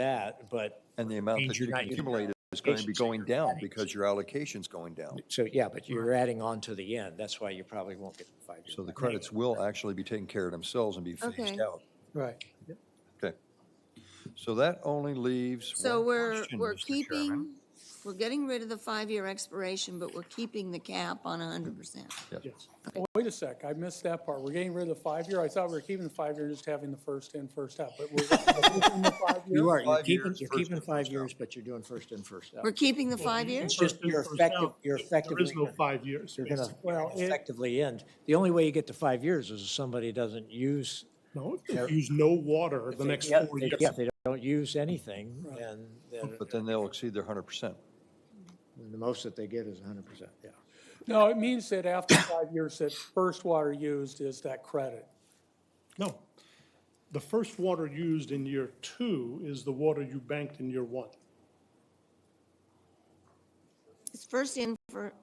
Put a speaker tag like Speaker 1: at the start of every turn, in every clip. Speaker 1: that, but
Speaker 2: And the amount that
Speaker 1: Means
Speaker 2: you
Speaker 1: you're not using
Speaker 2: accumulate is going to be
Speaker 1: allocations that
Speaker 2: going
Speaker 1: you're
Speaker 2: down
Speaker 1: adding.
Speaker 2: because your allocation's going down.
Speaker 1: so, yeah, but you're adding on to the end. That's why you probably won't get the five.
Speaker 2: So the credits will actually be taken care of themselves and be
Speaker 3: Okay.
Speaker 2: phased out.
Speaker 4: Right.
Speaker 2: Okay. So that only leaves.
Speaker 3: So
Speaker 2: one
Speaker 3: we're,
Speaker 2: question,
Speaker 3: we're
Speaker 2: Mr. Chairman.
Speaker 3: keeping, we're getting rid of the five-year expiration, but we're keeping the cap on hundred percent.
Speaker 4: Yes. Oh, Wait a sec, I missed that part. We're getting rid of the five-year. I thought we were keeping the five-year, and just having the first in, first out, but we're keeping the
Speaker 1: You
Speaker 4: five-year.
Speaker 1: are, you're
Speaker 2: Five
Speaker 1: keeping,
Speaker 2: years,
Speaker 1: you're
Speaker 2: first
Speaker 1: keeping
Speaker 2: in,
Speaker 1: five
Speaker 2: first
Speaker 1: years, but you're doing first in, first out.
Speaker 3: We're keeping the five year?
Speaker 1: It's just your
Speaker 5: First in,
Speaker 1: effective,
Speaker 5: first
Speaker 1: you're
Speaker 5: out. There
Speaker 1: effectively,
Speaker 5: is no
Speaker 1: you're
Speaker 5: five years.
Speaker 1: gonna
Speaker 5: basically.
Speaker 1: you're gonna
Speaker 4: it-
Speaker 1: effectively end. The only way you get to five years is if somebody doesn't use.
Speaker 5: No, if they use no water the next four
Speaker 1: they-
Speaker 5: years.
Speaker 1: If they don't use anything, then, then
Speaker 2: But then they'll exceed their hundred percent.
Speaker 1: the most that they get is hundred percent, yeah.
Speaker 4: No, it means that after five years, that first water used is that credit.
Speaker 5: No. The first water used in year two is the water you banked in year one.
Speaker 3: It's first in for,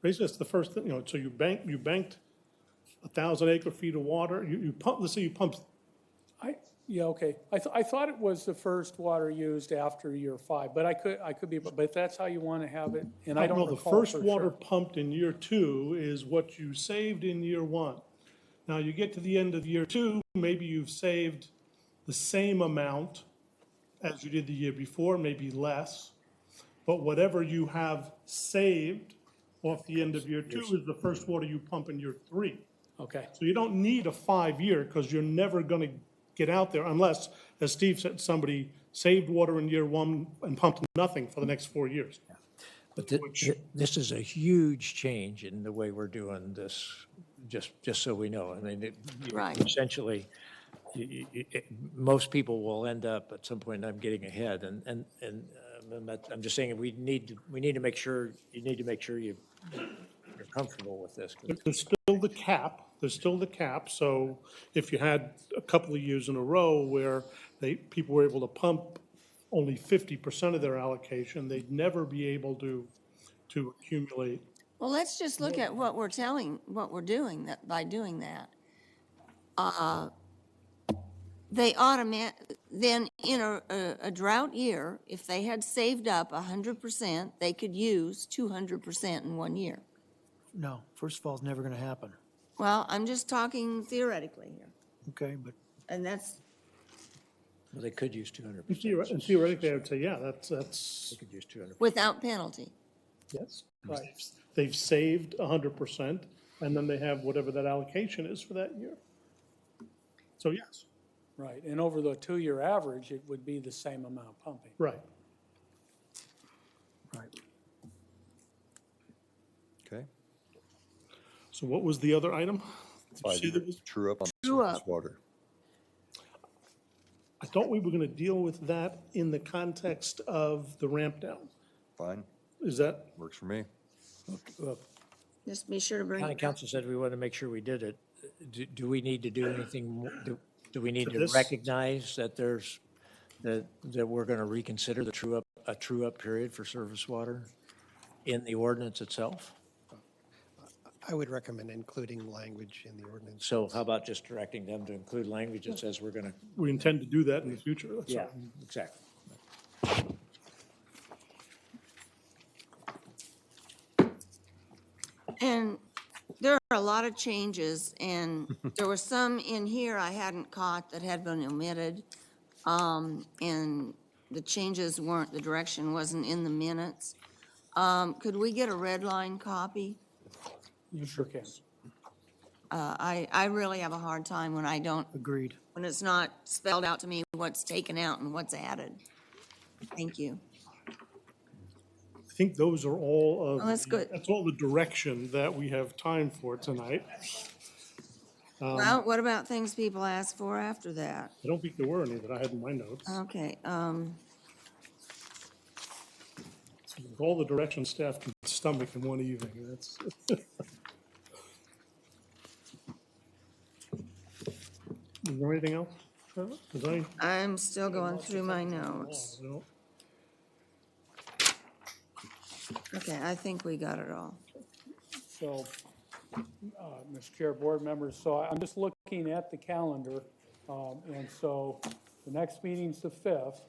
Speaker 5: Basically, that's the first thing, you know, so you bank, you banked a thousand acre feet of water, you, you pump, let's say you pumped,
Speaker 4: I, yeah, okay. I, th- I thought it was the first water used after year five, but I could, I could be, but if that's how you want to have it, and I
Speaker 5: I
Speaker 4: don't
Speaker 5: know, the
Speaker 4: recall
Speaker 5: first
Speaker 4: for
Speaker 5: water
Speaker 4: sure.
Speaker 5: pumped in year two is what you saved in year one. Now, you get to the end of year two, maybe you've saved the same amount as you did the year before, maybe less. But whatever you have saved off the end of year two is the first water you pump in year three.
Speaker 4: Okay,
Speaker 5: So you don't need a five-year because you're never going to get out there unless, as Steve said, somebody saved water in year one and pumped nothing for the next four years.
Speaker 1: But thi- thi- this is a huge change in the way we're doing this, just, just so we know. I mean, it- you-
Speaker 3: Right.
Speaker 1: essentially, you- you- it- most people will end up at some point, I'm getting ahead, and, and, and um, I'm not- I'm just saying, we need, to we need to make sure, you need to make sure you, you're comfortable with this. 'cause
Speaker 5: There's still the cap, there's still the cap, so if you had a couple of years in a row where they, people were able to pump only fifty percent of their allocation, they'd never be able to, to accumulate.
Speaker 3: well, let's just look at what we're telling, what we're doing that, by doing that. Uh, They automat, then in a, a- a drought year, if they had saved up hundred percent, they could use two hundred percent in one year.
Speaker 6: No, first of all, it's never going to happen,
Speaker 3: Well, I'm just talking theoretically here,
Speaker 6: okay? But
Speaker 3: and that's,
Speaker 1: They could use 200%.
Speaker 5: And theoretically, I would say, yeah, that's, that's,
Speaker 1: They could use 200%.
Speaker 3: without penalty.
Speaker 5: yes, they've saved hundred percent, and then they have whatever that allocation is for that year. So yes,
Speaker 4: right. And over the two-year average, it would be the same amount pumping.
Speaker 5: right.
Speaker 2: Okay?
Speaker 5: So what was the other item? Did you
Speaker 2: Five
Speaker 5: see there was-
Speaker 2: years, true up on
Speaker 3: True
Speaker 2: surface
Speaker 3: up.
Speaker 2: water.
Speaker 5: I thought we were going to deal with that in the context of the ramp down.
Speaker 2: Fine,
Speaker 5: Is that,
Speaker 2: works for me.
Speaker 1: Well,
Speaker 3: Just be sure to bring
Speaker 1: County
Speaker 3: it back.
Speaker 1: council said we want to make sure we did it. Do, do we need to do anything, mo- do, do we need to
Speaker 5: this?
Speaker 1: recognize that there's, that, that we're going to reconsider the true up, a true up period for service water in the ordinance itself?
Speaker 7: I would recommend including language in the ordinance.
Speaker 1: So how about just directing them to include language that says we're going to?
Speaker 5: we intend to do that in the future. that's all.
Speaker 1: Exactly.
Speaker 3: And there are a lot of changes, and there were some in here I hadn't caught that had been omitted. Um, and the changes weren't, the direction wasn't in the minutes. Um, could we get a red line copy?
Speaker 4: You sure can.
Speaker 3: Uh, I, I really have a hard time when I don't,
Speaker 6: agreed.
Speaker 3: when it's not spelled out to me what's taken out and what's added. Thank you.
Speaker 5: I think those are all of.
Speaker 3: Oh, that's
Speaker 5: the-
Speaker 3: good.
Speaker 5: That's all the direction that we have time for tonight.
Speaker 3: Well, what about things people ask for after that?
Speaker 5: I don't think there were any that I had in my notes.
Speaker 3: Okay, um,
Speaker 5: With All the direction staff can stomach in one evening, that's. Is there anything else? Trevor? Did I? oh,
Speaker 3: I'm still going through my notes.
Speaker 5: no.
Speaker 3: Okay, I think we got it all.
Speaker 4: So, uh, Mr. Chair, board members, so I'm just looking at the calendar, um, and so the next meeting's the 5th.